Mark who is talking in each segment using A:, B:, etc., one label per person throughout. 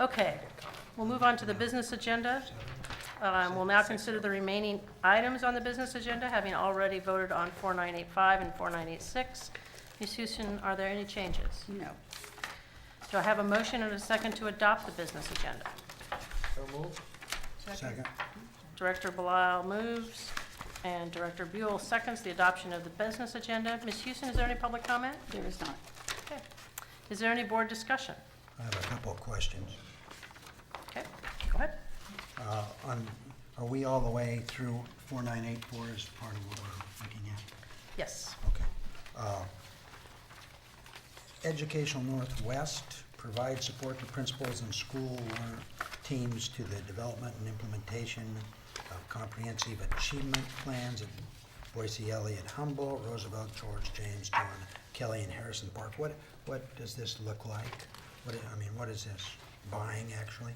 A: Okay, we'll move on to the business agenda. Um, We'll now consider the remaining items on the business agenda, having already voted on 4985 and 4986. Ms. Houston, are there any changes?
B: No.
A: Do I have a motion and a second to adopt the business agenda?
C: Second.
A: Director Blau moves, and Director Buell seconds the adoption of the business agenda. Ms. Houston, is there any public comment?
B: There is not.
A: Okay. Is there any board discussion?
C: I have a couple of questions.
A: Okay, go ahead.
C: Uh, on- Are we all the way through 4984 is part of what we're looking at?
A: Yes.
C: Okay. Uh, Educational Northwest provides support to principals and school teams to the development and implementation of comprehensive achievement plans at Boise Elliott Humboldt, Roosevelt, George James, John Kelly, and Harrison Park. What, what does this look like? What, I mean, what is this buying actually?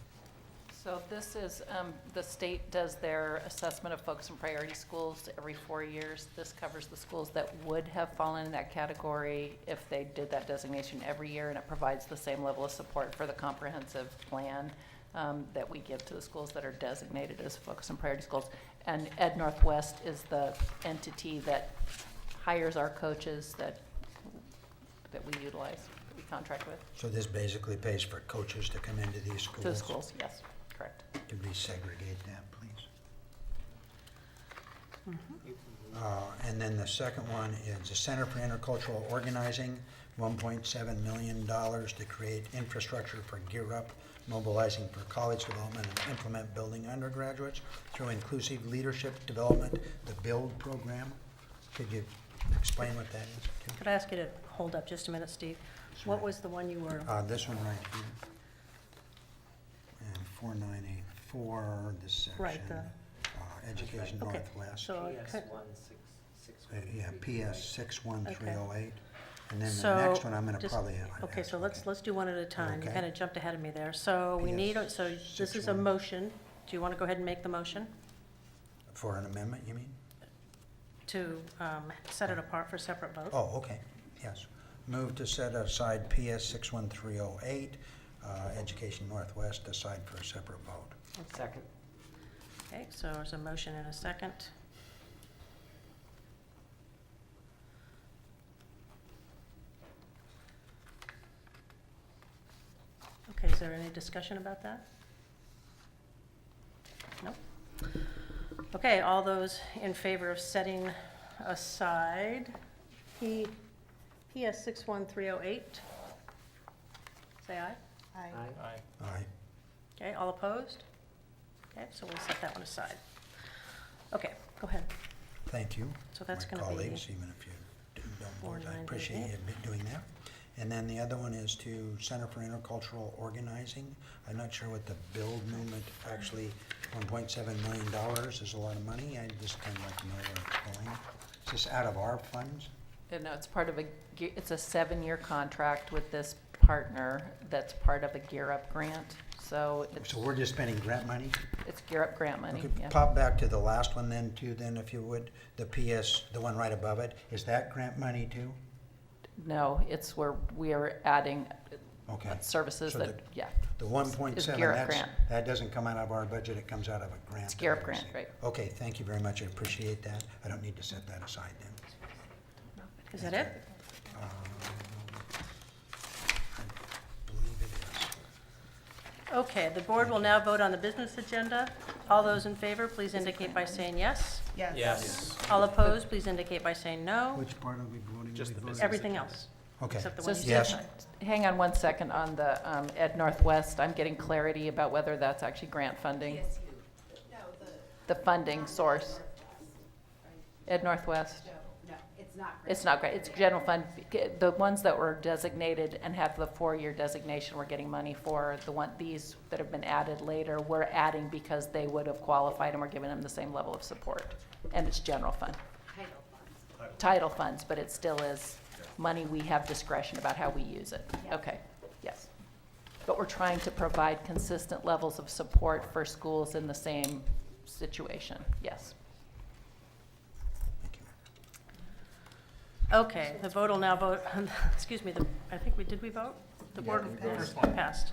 D: So this is, um, the state does their assessment of focus and priority schools every four years. This covers the schools that would have fallen in that category if they did that designation every year, and it provides the same level of support for the comprehensive plan um, that we give to the schools that are designated as focus and priority schools. And Ed Northwest is the entity that hires our coaches that, that we utilize, that we contract with,
C: So this basically pays for coaches to come into these schools?
D: to the schools, yes, correct.
C: Could we segregate that, please?
D: Mm-hmm.
C: Uh, And then the second one is the Center for Intercultural Organizing, $1.7 million to create infrastructure for Gear Up, mobilizing for college development and implement building undergraduates through inclusive leadership development, the BUILD program. Could you explain what that is? Kim?
A: Could I ask you to hold up just a minute, Steve? What
C: Sure.
A: was the one you were,
C: Uh, this one right here. And four nine eight four, this section.
A: Right, the-
C: uh, Education
A: Okay,
C: Northwest.
A: so-
C: Uh,
A: Oh, it
E: PS
A: could-
E: one six six.
C: Yeah, PS six one three oh eight. And then
A: so...
C: the next one, I'm gonna
A: just-
C: probably.
A: Okay, so let's, let's do one at a time. You
C: Okay.
A: kind of jumped ahead of me there. So we need, a- so
C: PS
A: this is a
C: 61.
A: motion. Do you want to go ahead and make the motion
C: For an amendment, you mean?
A: to um, set it apart for separate vote?
C: Oh, okay, yes. Move to set aside PS six one three oh eight, uh, Education Northwest aside for a separate vote.
E: Second.
A: Okay, so there's a motion and a second. Okay, is there any discussion about that? No? Okay, all those in favor of setting aside P, PS 61308? Say aye.
B: Aye.
E: Aye.
C: All right,
A: Okay, all opposed? Okay, so we'll set that one aside. Okay, go ahead.
C: Thank you.
A: So that's
C: my
A: gonna be
C: colleagues, even if you do- don't board, I
A: 498.
C: appreciate you be- doing that. And then the other one is to Center for Intercultural Organizing. I'm not sure what the build movement, actually, one point seven million dollars is a lot of money. I just kind of like to know where it's going. Is this out of our funds?
D: And no, it's part of a, ge- it's a seven-year contract with this partner that's part of a Gear Up grant. So it's,
C: So we're just spending grant money?
D: it's Gear Up grant money,
C: Okay,
D: yeah.
C: Pop back to the last one then too, then if you would, the PS, the one right above it. Is that grant money too?
D: No, it's where we are adding
C: Okay.
D: services
C: So
D: that,
C: the-
D: yeah.
C: The one point
D: It's
C: seven,
D: GEAR Up
C: that's,
D: grant.
C: that doesn't come out of our budget, it comes out of a grant.
D: It's
C: that
D: GEAR
C: we
D: Up grant,
C: receive.
D: right.
C: Okay, thank you very much, I appreciate that. I don't need to set that aside then.
A: Is that it?
C: Um, I believe it is.
A: Okay, the board will now vote on the business agenda. All those in favor, please indicate by saying yes.
E: Yes.
A: All opposed, please indicate by saying no.
C: Which part are we voting?
E: Just
C: We
E: the
C: voted-
E: business.
A: Everything else.
C: Okay,
A: Except the
D: So
A: one you
D: it's
A: said.
C: Yes.
D: just- Hang on one second on the um, Ed Northwest. I'm getting clarity about whether that's actually grant funding. The funding source. Ed Northwest.
F: No, it's not.
D: It's not great, it's general fund, the ones that were designated and have the four-year designation we're getting money for, the one, these that have been added later, we're adding because they would have qualified and we're giving them the same level of support. And it's general fund,
F: title funds.
D: title funds, but it still is money we have discretion about how we use it. Okay, yes. But we're trying to provide consistent levels of support for schools in the same situation, yes.
C: thank you.
A: Okay, the vote will now vote, excuse me, the- I think we, did we vote? The board passed.